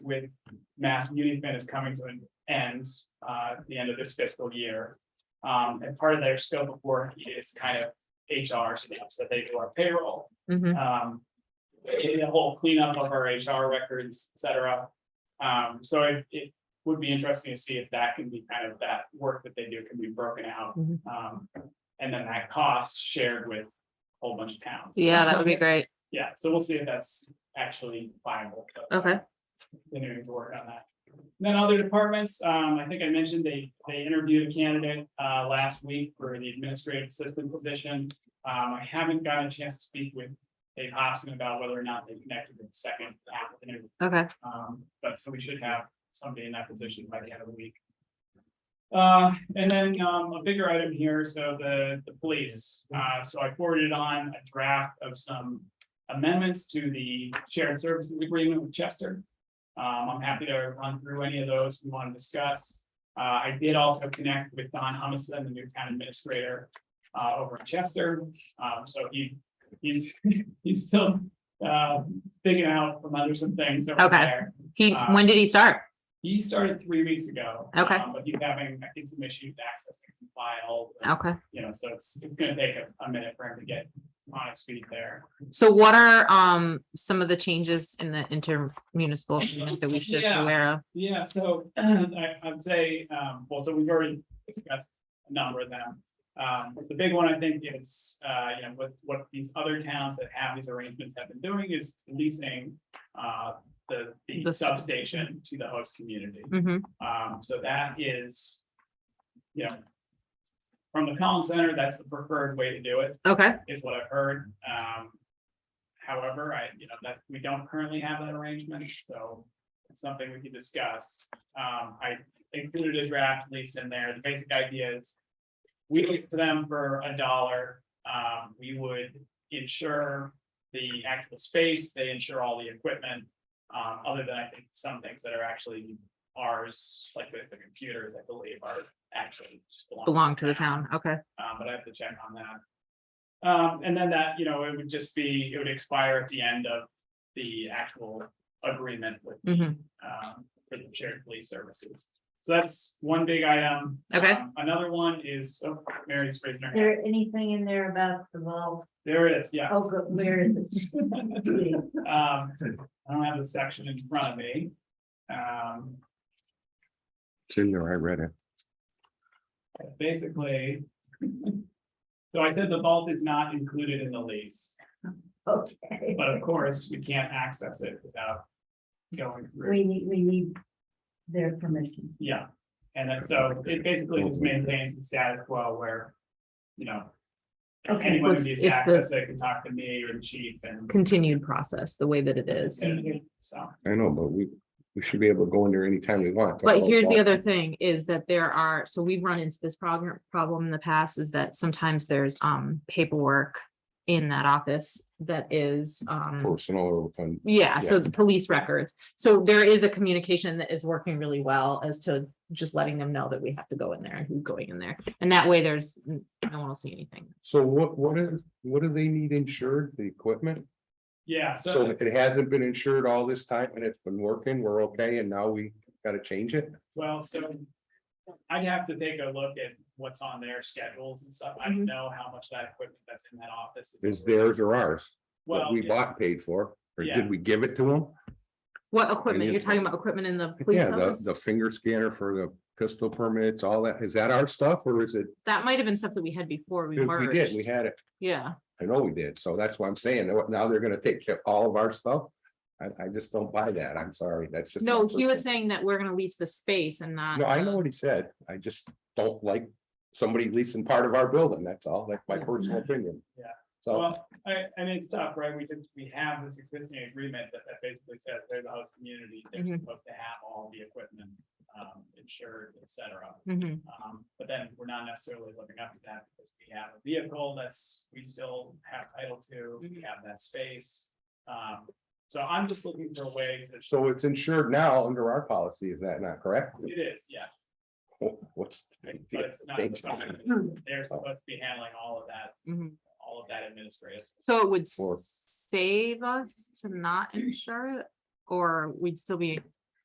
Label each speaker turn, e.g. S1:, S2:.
S1: with Mass Beauty Fin is coming to an end, uh, at the end of this fiscal year. Um, and part of their scope of work is kind of HR stuff, so they do our payroll,
S2: Mhm.
S1: um, i- the whole cleanup of our HR records, et cetera. Um, so it, it would be interesting to see if that can be kind of that work that they do can be broken out.
S2: Mhm.
S1: Um, and then that cost shared with a whole bunch of towns.
S2: Yeah, that would be great.
S1: Yeah, so we'll see if that's actually viable. but, uh,
S2: Okay.
S1: Continuing to work on that. And Then other departments, um, I think I mentioned they, they interviewed a candidate, uh, last week for the administrative assistant position. Um, I haven't gotten a chance to speak with Dave Hobson about whether or not they connected with the second applicant.
S2: Okay.
S1: Um, but so we should have somebody in that position by the end of the week. Uh, and then, um, a bigger item here, so the, the police, uh, so I forwarded on a draft of some amendments to the shared services agreement with Chester. Um, I'm happy to run through any of those we want to discuss. Uh, I did also connect with Don Humison, the new town administrator, uh, over in Chester. Um, so he, he's, he's still, uh, figuring out from under some things over
S2: Okay.
S1: there.
S2: He,
S1: Uh,
S2: when did he start?
S1: He started three weeks ago.
S2: Okay.
S1: um, But he's having, I think, some issues accessing some files, and,
S2: Okay.
S1: you know, so it's, it's gonna take a, a minute for him to get on his feet there.
S2: So what are, um, some of the changes in the intermunicipal agreement that we should be
S1: Yeah.
S2: aware of?
S1: Yeah, so I, I'd say, um, well, so we've already discussed a number of them. Um, the big one, I think, is, uh, you know, what, what these other towns that have these arrangements have been doing is leasing, uh, the, the
S2: The-
S1: substation to the host community.
S2: hmm
S1: Um, so that is, you know. From the Collins Center, that's the preferred way to do it,
S2: okay,
S1: is what I've heard, um. However, I, you know, that, we don't currently have that arrangement, so it's something we could discuss. Um, I included a draft lease in there, the basic idea is. We lease to them for a dollar, um, we would insure the actual space, they insure all the equipment. Um, other than I think some things that are actually ours, like the, the computers, I believe are actually. just
S2: belong to the town, okay,
S1: um, but I have to check on that. Um, and then that, you know, it would just be, it would expire at the end of the actual agreement with,
S2: hmm
S1: um, for the shared police services. So that's one big item.
S2: Okay.
S1: Um, Another one is, oh, Mary's raising her hand.
S3: There anything in there about the vault?
S1: There it is, yeah.
S3: Oh, good, where is it?
S1: Um, I don't have the section in front of me. Um,
S4: It's in there, I read it.
S1: basically. So I said the vault is not included in the lease,
S3: Okay,
S1: but of course, we can't access it without going through.
S3: we need, we need their permission.
S1: Yeah, and then so it basically just maintains the status quo where, you know.
S3: Okay.
S1: Anyone
S2: It's-
S1: who needs
S2: it's the-
S1: access, they can talk to me or the chief and.
S2: continued process, the way that it is.
S1: and- So,
S4: I know, but we, we should be able to go in there anytime we want.
S2: But here's the other thing is that there are, so we've run into this problem, problem in the past is that sometimes there's, um, paperwork in that office that is, um,
S4: Personal, and
S2: yeah, so the police records. So there is a communication that is working really well as to just letting them know that we have to go in there and who's going in there. And that way there's, no one will see anything.
S4: so what, what is, what do they need insured, the equipment?
S1: yeah,
S4: So
S1: so,
S4: if it hasn't been insured all this time and it's been working, we're okay, and now we gotta change it?
S1: well, so. I'd have to take a look at what's on their schedules and stuff. I
S2: Mhm.
S3: Mm-hmm.
S1: don't know how much that equipment that's in that office.
S4: Is theirs or ours? What
S1: Well,
S4: we bought paid for, or
S1: Yeah.
S4: did we give it to them?
S2: What equipment? You're
S4: it's-
S2: talking about equipment in the police
S4: Yeah, the,
S2: office?
S4: the finger scanner for the pistol permits, all that, is that our stuff, or is it,
S2: That might have been stuff that we had before we
S4: we did, we
S2: merged.
S4: had it
S2: Yeah,
S4: I know we did, so that's what I'm saying, now- now they're gonna take care of all of our stuff. I, I just don't buy that, I'm sorry, that's just.
S2: no,
S4: my
S2: he was
S4: personal-
S2: saying that we're gonna lease the space and not.
S4: No, I know
S2: the-
S4: what he said, I just don't like somebody leasing part of our building, that's all, that's my personal opinion.
S1: Yeah.
S4: So,
S1: Well, I, I mean, it's tough, right? We just, we have this existing agreement that, that basically says they're the host community. They're
S2: Mhm.
S1: supposed to have all the equipment, um, insured, et cetera.
S2: Mhm,
S1: Um, but then we're not necessarily living up to that because we have a vehicle that's, we still have title to, we
S2: Mhm.
S1: have that space. Um, so I'm just looking for a way to,
S4: so it's insured now under our policy, is that not correct?
S1: it is, yeah,
S4: What's?
S1: but it's not.
S4: Thank
S3: you.
S1: They're supposed to be handling all of that,
S2: mhm.
S1: all of that administrative.
S2: So it would
S4: Or-
S2: save us to not insure it, or we'd still be